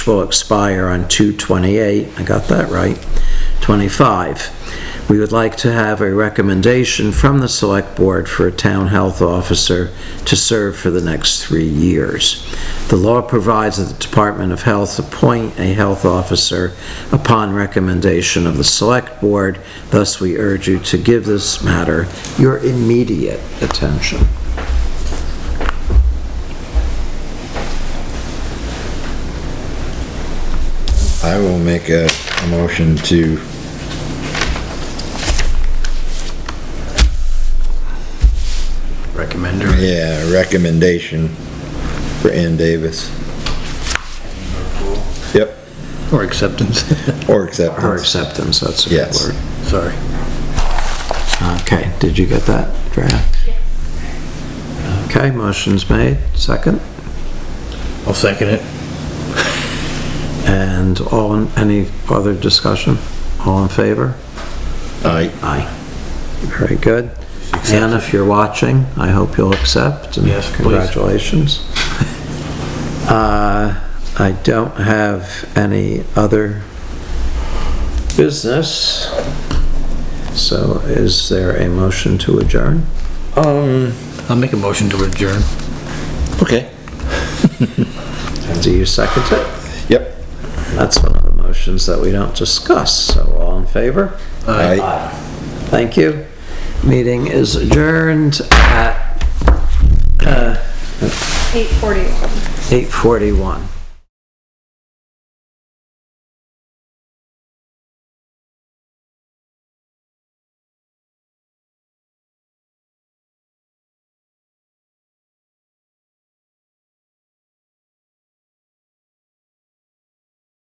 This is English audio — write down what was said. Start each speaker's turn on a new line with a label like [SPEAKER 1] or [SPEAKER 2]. [SPEAKER 1] will expire on 2/28, I got that right, '25. We would like to have a recommendation from the Select Board for a Town Health Officer to serve for the next three years. The law provides that the Department of Health appoint a health officer upon recommendation of the Select Board, thus we urge you to give this matter your immediate attention.
[SPEAKER 2] I will make a, a motion to
[SPEAKER 3] Recommender.
[SPEAKER 2] Yeah, recommendation for Ann Davis. Yep,
[SPEAKER 3] Or acceptance,
[SPEAKER 2] or
[SPEAKER 1] Or
[SPEAKER 2] acceptance.
[SPEAKER 1] acceptance, that's a good
[SPEAKER 2] Yes.
[SPEAKER 1] word.
[SPEAKER 3] sorry.
[SPEAKER 1] Okay, did you get that, Fran? Yes. Okay, motion's made, second,
[SPEAKER 3] I'll second it.
[SPEAKER 1] and all, in any other discussion? All in favor?
[SPEAKER 2] Aye.
[SPEAKER 1] Aye. Very good. Ann, if you're watching, I hope you'll accept. and
[SPEAKER 3] Yes, please.
[SPEAKER 1] Congratulations. Uh, I don't have any other business, so is there a motion to adjourn?
[SPEAKER 2] Um,
[SPEAKER 3] I'll make a motion to adjourn.
[SPEAKER 2] okay.
[SPEAKER 1] Do you second it?
[SPEAKER 2] Yep.
[SPEAKER 1] That's one of the motions that we don't discuss, so all in favor?
[SPEAKER 3] Uh.
[SPEAKER 2] Aye.
[SPEAKER 1] Thank you. Meeting is adjourned at
[SPEAKER 4] 841.
[SPEAKER 1] 8:41.